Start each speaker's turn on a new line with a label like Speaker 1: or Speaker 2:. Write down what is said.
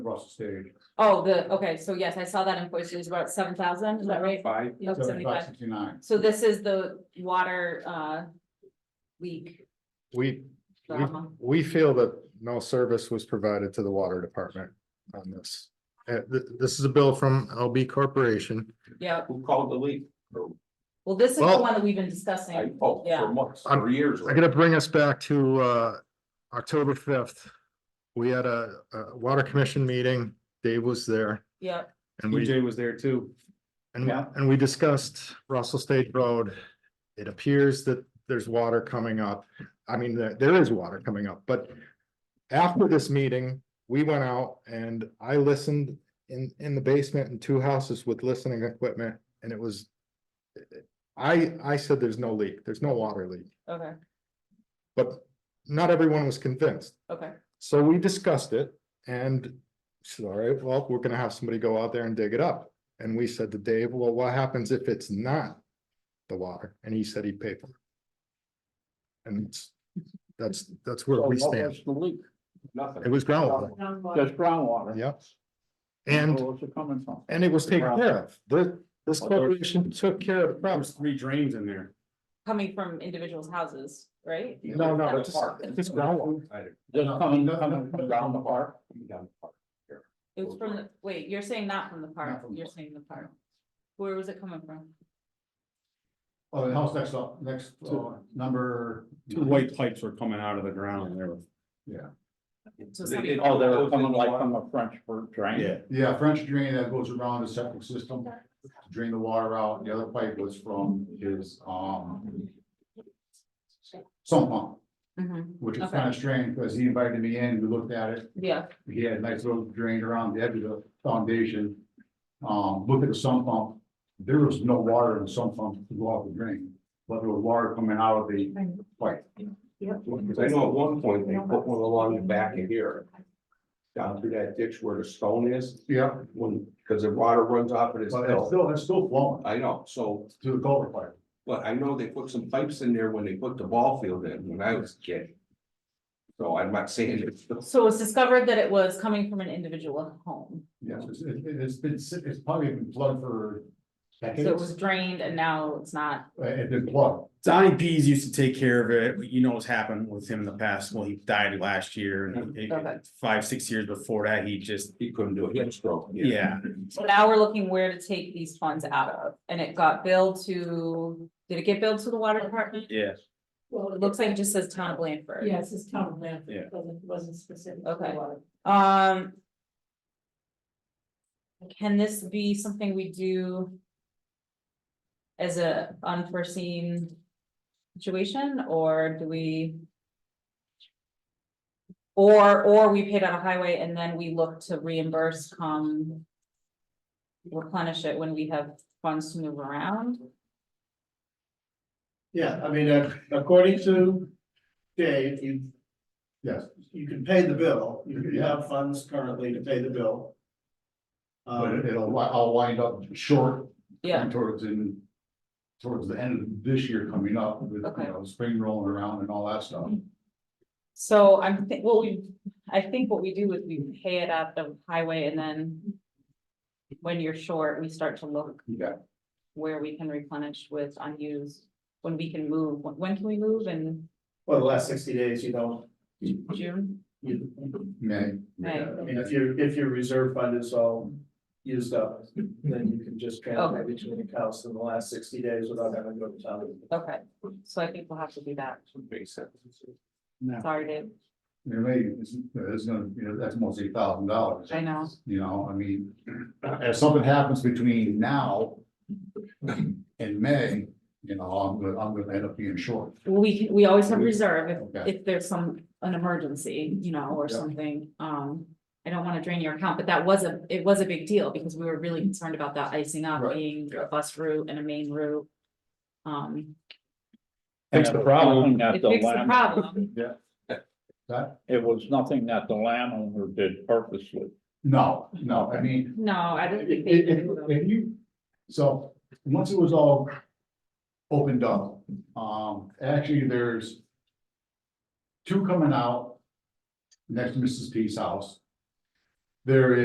Speaker 1: across the stage.
Speaker 2: Oh, the, okay, so yes, I saw that invoice, it was about seven thousand, is that right?
Speaker 1: Five,
Speaker 2: Yep,
Speaker 1: seventy-five,
Speaker 2: 75.
Speaker 1: sixty-nine.
Speaker 2: So this is the water, uh, leak
Speaker 3: We, we,
Speaker 2: drama.
Speaker 3: we feel that no service was provided to the water department on this. Uh, th- this is a bill from LB Corporation.
Speaker 2: Yeah,
Speaker 1: Who called the leak?
Speaker 2: well, this is the
Speaker 3: Well-
Speaker 2: one that we've been
Speaker 1: I,
Speaker 2: discussing.
Speaker 1: oh,
Speaker 2: Yeah.
Speaker 1: for months, for years.
Speaker 3: I'm gonna bring us back to uh October fifth. We had a a water commission meeting, Dave was there.
Speaker 2: Yeah,
Speaker 3: And we,
Speaker 1: was there too.
Speaker 3: and we-
Speaker 1: Yeah.
Speaker 3: and we discussed Russell State Road. It appears that there's water coming up. I mean, there there is water coming up, but. After this meeting, we went out and I listened in in the basement in two houses with listening equipment and it was. I I said there's no leak, there's no water leak.
Speaker 2: okay,
Speaker 3: But not everyone was convinced,
Speaker 2: okay,
Speaker 3: so we discussed it and. Said, all right, well, we're gonna have somebody go out there and dig it up, and we said to Dave, well, what happens if it's not? The water, and he said he'd pay for it. And it's- that's, that's where we stand,
Speaker 4: The leak,
Speaker 3: it
Speaker 1: Nothing.
Speaker 3: was groundwater,
Speaker 4: just groundwater.
Speaker 3: yeah. And,
Speaker 4: Where's it coming from?
Speaker 3: and it was taken care of, The- this corporation took care of the problem.
Speaker 1: three drains in there.
Speaker 2: coming from individuals' houses, right?
Speaker 3: No, no,
Speaker 2: Yeah.
Speaker 3: it's, it's groundwater,
Speaker 4: Just coming, coming from around the park.
Speaker 2: It was from, the wait, you're saying not from the park,
Speaker 1: from the
Speaker 2: you're
Speaker 1: park.
Speaker 2: saying the park. Where was it coming from?
Speaker 1: Oh, the house next up, next, uh, number. Two white pipes were coming out of the ground and they were. Yeah,
Speaker 2: So
Speaker 1: They-
Speaker 2: something-
Speaker 1: they-
Speaker 4: Oh, they were coming like from a French bird drain.
Speaker 1: yeah, French drain that goes around the septic system, to drain the water out, the other pipe was from his, um. Sump pump,
Speaker 2: Mhm,
Speaker 1: which is
Speaker 2: Okay.
Speaker 1: kind of strange, because he invited me in, we looked at it,
Speaker 2: Yeah,
Speaker 1: he had a nice little drain around the edge of the foundation. Um, look at the sump pump, there was no water in the sump pump to go off the drain, but there was water coming out of the pipe.
Speaker 5: Because I know at one point they put one along the back of here. Down through that ditch where the stone is,
Speaker 1: Yeah,
Speaker 5: when, because the water runs off of this
Speaker 1: but it's
Speaker 5: hill.
Speaker 1: still, it's still flowing
Speaker 5: I know, so,
Speaker 1: to the culvert pipe.
Speaker 5: but I know they put some pipes in there when they put the ball field in, when I was a kid. So I'm not saying it's,
Speaker 2: so it's discovered that it was coming from an individual home.
Speaker 1: Yes, it's, it- it's been, sit- it's probably been plugged for
Speaker 2: So it was
Speaker 1: decades.
Speaker 2: drained and now it's not,
Speaker 1: Uh, It's been plugged.
Speaker 6: Donnie Pease used to take care of it, but you know what's happened with him in the past, well, he died last year, and it-
Speaker 2: Okay.
Speaker 6: five, six years before that, he just,
Speaker 5: he couldn't do it, he had a stroke.
Speaker 6: yeah.
Speaker 2: so now we're looking where to take these funds out of. And it got billed to, did it get billed to the water department?
Speaker 6: Yeah.
Speaker 7: Well,
Speaker 2: It looks like it just says town of Blandford.
Speaker 7: Yes, it's town land.
Speaker 6: Yeah.
Speaker 7: Wasn't, wasn't specific.
Speaker 2: Okay. Um. Can this be something we do? As a unforeseen situation, or do we? Or, or we paid out a highway and then we look to reimburse come. Replenish it when we have funds to move around,
Speaker 8: Yeah, I mean, uh, according to Dave, you,
Speaker 1: Yes,
Speaker 8: you can pay the bill, you you have funds currently to pay the bill.
Speaker 1: but it-
Speaker 8: Um,
Speaker 1: it'll, wi- I'll wind up short
Speaker 2: yeah,
Speaker 1: and towards in. Towards the end of this year coming up with,
Speaker 2: Okay.
Speaker 1: you know, spring rolling around and all that stuff.
Speaker 2: so I'm, thi- well, we, I think what we do is we pay it out the highway and then. When you're short, we start to look
Speaker 1: Yeah,
Speaker 2: where we can replenish with unused, when we can move, when- when can we move in
Speaker 8: for the last sixty days, you don't,
Speaker 2: June?
Speaker 8: you,
Speaker 1: May.
Speaker 2: May.
Speaker 8: I mean, if your, if your reserve fund is all used up, then you can just transfer between accounts in the last sixty days without having to go to town.
Speaker 2: Okay, so I think we'll have to do that.
Speaker 5: Makes sense.
Speaker 2: Sorry, Dave.
Speaker 1: There may, it's, it's gonna, you know, that's almost eight thousand dollars.
Speaker 2: I know.
Speaker 1: You know, I mean, if something happens between now. And May, you know, I'm gonna, I'm gonna end up being short.
Speaker 2: We can, we always have reserve if,
Speaker 1: Okay.
Speaker 2: if there's some, an emergency, you know, or
Speaker 1: Yeah.
Speaker 2: something. Um, I don't want to drain your account, but that was a, it was a big deal because we were really concerned about that icing up
Speaker 1: Right,
Speaker 2: being a
Speaker 1: yeah.
Speaker 2: bus route and a main route. Um,
Speaker 4: Fix
Speaker 6: the problem.
Speaker 4: That
Speaker 2: it
Speaker 4: the
Speaker 2: fixed the
Speaker 4: land,
Speaker 2: problem.
Speaker 1: That,
Speaker 4: it was nothing that the landowner did purposely.
Speaker 1: no, no, I mean,
Speaker 2: No, I don't think
Speaker 1: If,
Speaker 2: they.
Speaker 1: if,
Speaker 2: do, though.
Speaker 1: if you, so, once it was all opened up, um, actually, there's two coming out next to Mrs. P's house. there